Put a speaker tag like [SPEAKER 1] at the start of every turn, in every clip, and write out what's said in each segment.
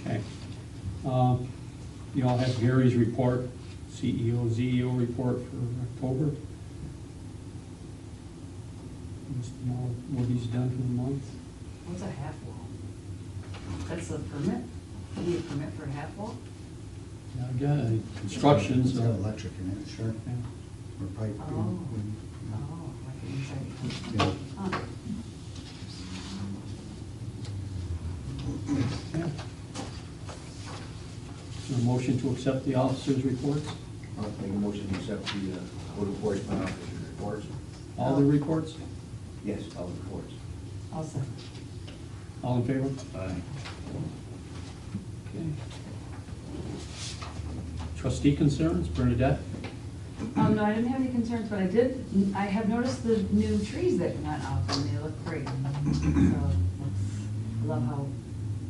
[SPEAKER 1] Okay. Um, You all have Gary's report, E CEO, ZEO report for October. Just know what he's done for the month.
[SPEAKER 2] What's a half wall? That's a permit? You need a permit for a half wall?
[SPEAKER 1] Yeah, I've got uh, Constructions.
[SPEAKER 3] It's
[SPEAKER 1] uh,
[SPEAKER 3] got electric in it, sure,
[SPEAKER 1] yeah.
[SPEAKER 3] or pipe. yeah,
[SPEAKER 2] Oh.
[SPEAKER 3] yeah.
[SPEAKER 2] Oh, like inside.
[SPEAKER 3] Yeah.
[SPEAKER 2] Huh.
[SPEAKER 1] Yeah. Is there a motion to accept the officers' reports?
[SPEAKER 4] I'll make a motion to accept the uh, code enforcement officer's reports.
[SPEAKER 1] All the reports?
[SPEAKER 4] Yes, all the reports.
[SPEAKER 2] I'll second.
[SPEAKER 1] All in favor?
[SPEAKER 4] Aye.
[SPEAKER 1] Okay. Trustee concerns, Bernadette?
[SPEAKER 2] Um, no, I didn't have any concerns, but I did, I have noticed the new trees that went up and they look great. So, it's- I love how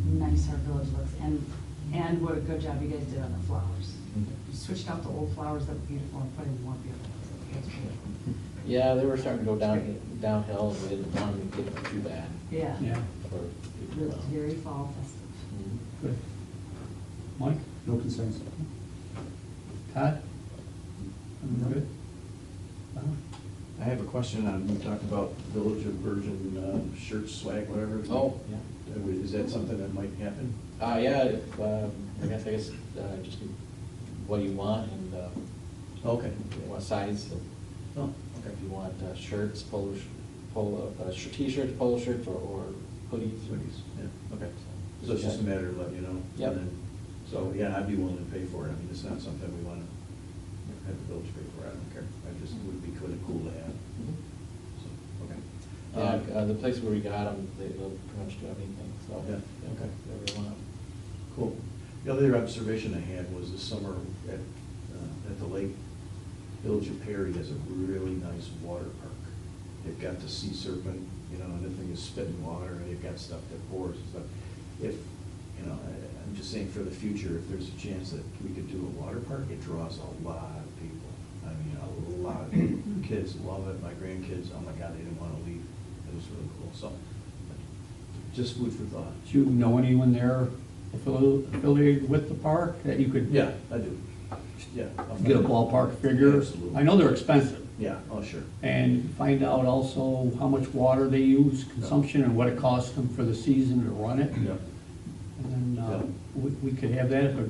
[SPEAKER 2] nice our village looks and, and what a good job you guys did on the flowers. You switched out the old flowers that were beautiful and put in more beautiful. That's beautiful.
[SPEAKER 5] Yeah, they were starting to go down, downhill, and we didn't want them to get them too bad.
[SPEAKER 2] Yeah.
[SPEAKER 1] Yeah,
[SPEAKER 5] for
[SPEAKER 2] It
[SPEAKER 5] people.
[SPEAKER 2] looks very fall festive.
[SPEAKER 5] Mhm.
[SPEAKER 1] good. Mike?
[SPEAKER 3] No concerns.
[SPEAKER 1] Todd? I'm good. Wow.
[SPEAKER 6] I have a question on, we talked about Village of Virgin uh, shirts, swag, whatever.
[SPEAKER 5] Oh, yeah.
[SPEAKER 6] Uh, Is that something that might happen?
[SPEAKER 5] Uh, yeah, if, uh, I guess, I guess, uh, just what you want and, uh,
[SPEAKER 6] Okay.
[SPEAKER 5] what size. and
[SPEAKER 6] Oh, okay.
[SPEAKER 5] If you want uh, shirts, polo, sh- polo, uh, sh- t-shirts, polo shirts, or, or hoodies.
[SPEAKER 6] Hoodies, yeah, okay. So it's just a matter of letting you know? and
[SPEAKER 5] Yep.
[SPEAKER 6] then- So, yeah, I'd be willing to pay for it. I mean, it's not something we want to have the village pay for. I don't care. I just, it would be kind of cool to have,
[SPEAKER 5] Mhm.
[SPEAKER 6] so, okay.
[SPEAKER 5] Yeah,
[SPEAKER 6] Um,
[SPEAKER 5] uh, the place where we got them, they, they'll pretty much do anything, so.
[SPEAKER 6] Yeah, okay.
[SPEAKER 5] Whatever you want.
[SPEAKER 6] Cool. The other observation I had was this summer at, uh, at the lake, Village of Perry has a really nice water park. They've got the sea serpent, you know, and the thing is spitting water, and they've got stuff that pours and stuff. If, you know, I- I'm just saying for the future, if there's a chance that we could do a water park, it draws a lot of people. I mean, a lot of people. Kids love it, my grandkids, oh my God, they didn't want to leave. It was really cool, so, just food for thought.
[SPEAKER 1] Do you know anyone there affili- affiliated with the park that you could?
[SPEAKER 6] Yeah, I do. Yeah. I'll
[SPEAKER 1] Get a
[SPEAKER 6] find out.
[SPEAKER 1] ballpark figure?
[SPEAKER 6] Absolutely.
[SPEAKER 1] I know they're expensive.
[SPEAKER 6] Yeah, oh, sure.
[SPEAKER 1] And find out also how much water they use, consumption, and what it costs them for the season to run it.
[SPEAKER 6] Yeah.
[SPEAKER 1] And then uh,
[SPEAKER 6] Yeah.
[SPEAKER 1] we we could have that if a-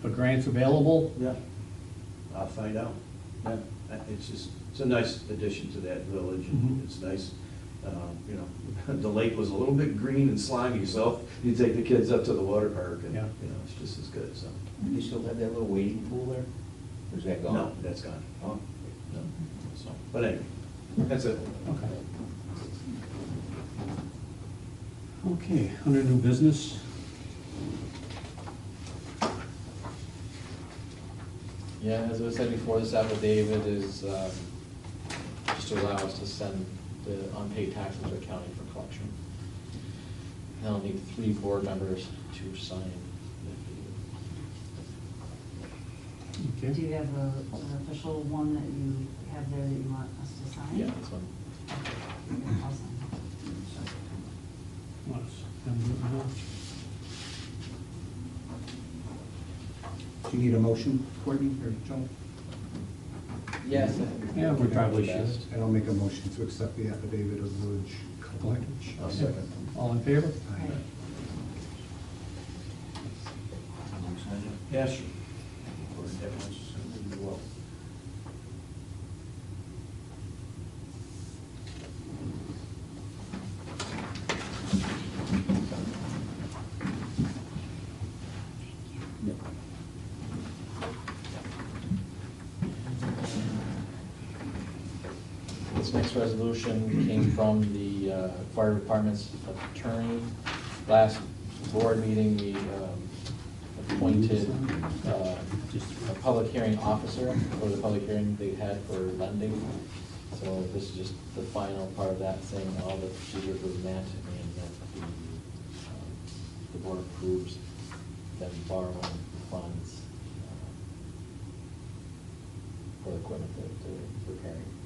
[SPEAKER 1] if a grant's available.
[SPEAKER 6] Yeah. I'll find out. Yeah, I- it's just, it's a nice addition to that village, and
[SPEAKER 1] Mhm.
[SPEAKER 6] it's nice, um, you know, the lake was a little bit green and slimy, so you take the kids up to the water park, and, you
[SPEAKER 1] Yeah.
[SPEAKER 6] know, it's just as good, so.
[SPEAKER 4] Do they still have that little wading pool there? Or is that gone?
[SPEAKER 6] No, that's gone.
[SPEAKER 4] Oh,
[SPEAKER 6] No. So, But anyway, that's it.
[SPEAKER 1] Okay. Okay, under new business.
[SPEAKER 5] Yeah, as I said before, this affidavit is um, just to allow us to send the unpaid taxes to the county for collection. And I'll need three board members to sign. the
[SPEAKER 2] Do
[SPEAKER 1] Okay.
[SPEAKER 2] you have a, an official one that you have there that you want us to sign?
[SPEAKER 5] affidavit. Yeah, this one.
[SPEAKER 2] I'll sign it.
[SPEAKER 1] Let's- I'm good now.
[SPEAKER 3] Do you need a motion, Courtney or Joe?
[SPEAKER 5] Yes.
[SPEAKER 1] Yeah, we probably should.
[SPEAKER 3] And I'll make a motion to accept the affidavit of village collector.
[SPEAKER 6] I'll second.
[SPEAKER 1] All in favor?
[SPEAKER 3] Aye.
[SPEAKER 2] Right.
[SPEAKER 4] I'm excited.
[SPEAKER 6] Yeah, sure.
[SPEAKER 4] Or everyone's excited? Well,
[SPEAKER 5] This next resolution came from the uh, fire department's attorney. Last board meeting, we um, appointed uh, a public hearing officer for the public hearing they had for lending. So this is just the final part of that, saying all the procedures were met and that the, um, the board approves them borrowing funds uh, for equipment that they're repairing.